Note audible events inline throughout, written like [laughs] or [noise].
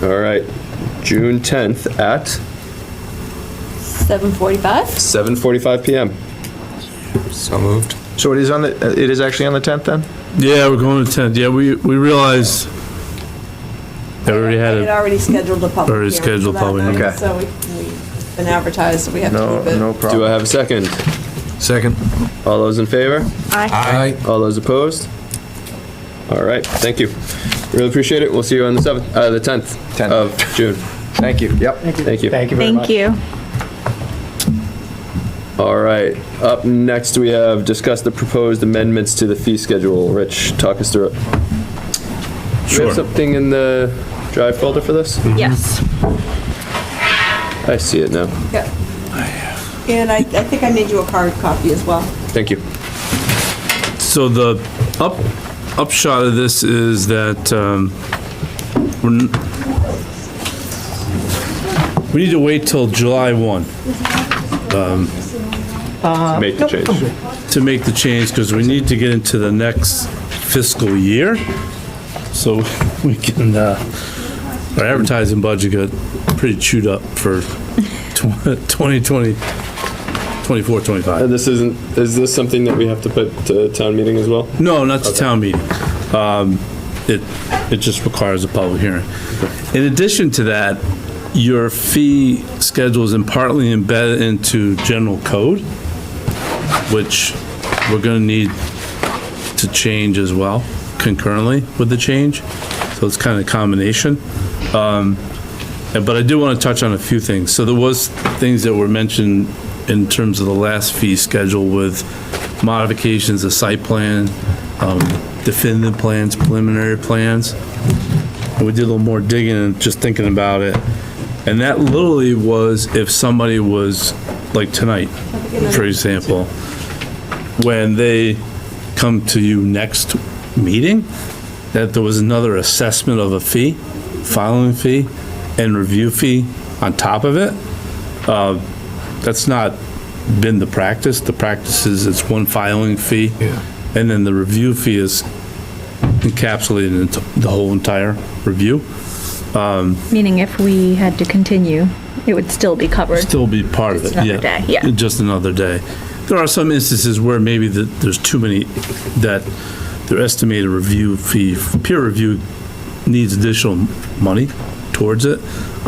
All right, June 10th at 7:45? 7:45 PM. So moved. So it is on the, uh, it is actually on the 10th then? Yeah, we're going to 10th. Yeah, we, we realized that we already had It it. already scheduled a public Already hearing for scheduled that public night, hearing. Okay. So we, we've been advertised, so we have No, to keep no it. Do I problem. have a second? Second. All those in favor? Aye. All those opposed? All right, thank you. Really appreciate it. We'll see you on the 7th, uh, the 10th 10th. of June. Thank you, yep. Thank you. Thank you very much. Thank you. All right, up next, we have discussed the proposed amendments to the fee schedule. Rich, talk us through it. Do we Sure. have something in the drive folder for this? Yes. I see it now. Yeah. And I, I think I made you a hard copy as well. Thank you. So the up, upshot of this is that, um, we're n- we need to wait till July 1 Make the change. to make the change because we need to get into the next fiscal year. So [laughs] we can, uh, our advertising budget got pretty chewed up for tw- [laughs] 2020, 24, 25. And Uh, this isn't, is this something that we have to put to town meeting as well? No, not the town meeting. Um, It, it just requires a public hearing. In addition to that, your fee schedule is in partly embedded into general code, which we're gonna need to change as well concurrently with the change. So it's kind of a combination. Um, and- But I do want to touch on a few things. So there was things that were mentioned in terms of the last fee schedule with modifications of site plan, um, definitive plans, preliminary plans. And we did a little more digging and just thinking about it. And that literally was if somebody was, like tonight, for example, when they come to you next meeting, that there was another assessment of a fee, filing fee, and review fee on top of it. Uh, That's not been the practice. The practice is it's one filing fee. And then the review fee is encapsulated into the whole entire review. Meaning if we had to continue, it would still be covered. Still be part of it, Just yeah. another day, yeah. Just another day. There are some instances where maybe that there's too many, that their estimated review fee, peer review needs additional money towards it,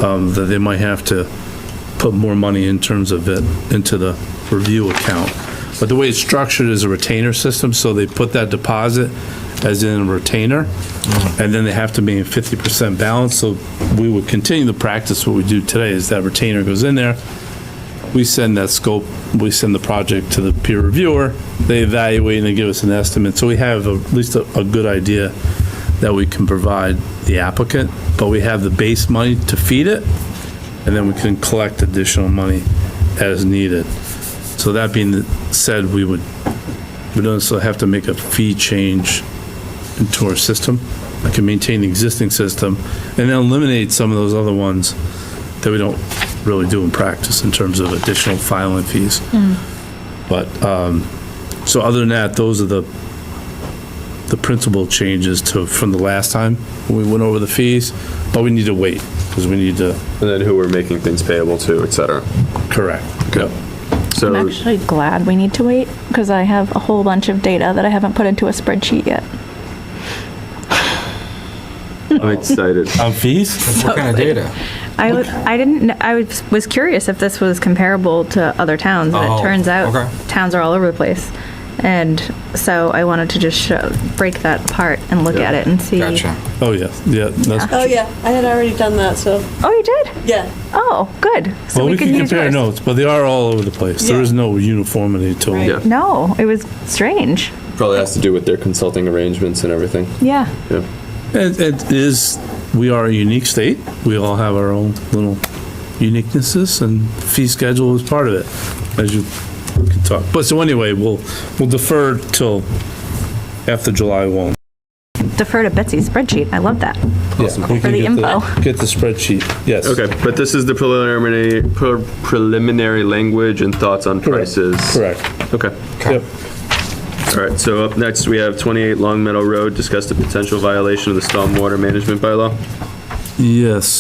um, that they might have to put more money in terms of it into the review account. But the way it's structured is a retainer system, so they put that deposit as in a retainer, and then they have to be in fifty percent balance, so we would continue the practice, what we do today is that retainer goes in there, we send that scope, we send the project to the peer reviewer, they evaluate and they give us an estimate, so we have at least a, a good idea that we can provide the applicant, but we have the base money to feed it, and then we can collect additional money as needed. So that being said, we would, we don't also have to make a fee change into our system. I can maintain the existing system and then eliminate some of those other ones that we don't really do in practice in terms of additional filing fees. But, um, so other than that, those are the, the principal changes to, from the last time we went over the fees, but we need to wait because we need to And then who we're making things payable to, et cetera. Correct. Yep. So. I'm actually glad we need to wait because I have a whole bunch of data that I haven't put into a spreadsheet yet. I'm excited. [laughs] On fees? What kind of data? I, would- I didn't, kn- I was- was curious if this was comparable to other towns, and Oh, it turns okay. out towns are all over the place. And so I wanted to just show, break that apart and look at it and see. Gotcha. Oh, yeah, yeah. that's- Oh, yeah, I had already done that, so, Oh, you did? yeah. Oh, good. So Well, we can use compare yours. notes, but they are all over the place. There Yeah. is no uniformity to Right. them. Yeah. No, it was strange. Probably has to do with their consulting arrangements and everything. Yeah. Yeah. It, it is, we are a unique state. We all have our own little uniquenesses and fee schedule is part of it, as you can talk. But so anyway, we'll, we'll defer till after July 1. Defer to Betsy's spreadsheet. I love that. Awesome. For the info. Get the spreadsheet, yes. Okay, but this is the preliminary, pre- preliminary language and thoughts on Correct. prices. Correct. Okay. Yep. All right, so up next, we have 28 Long Meadow Road, discuss the potential violation of the stormwater management bylaw. Yes.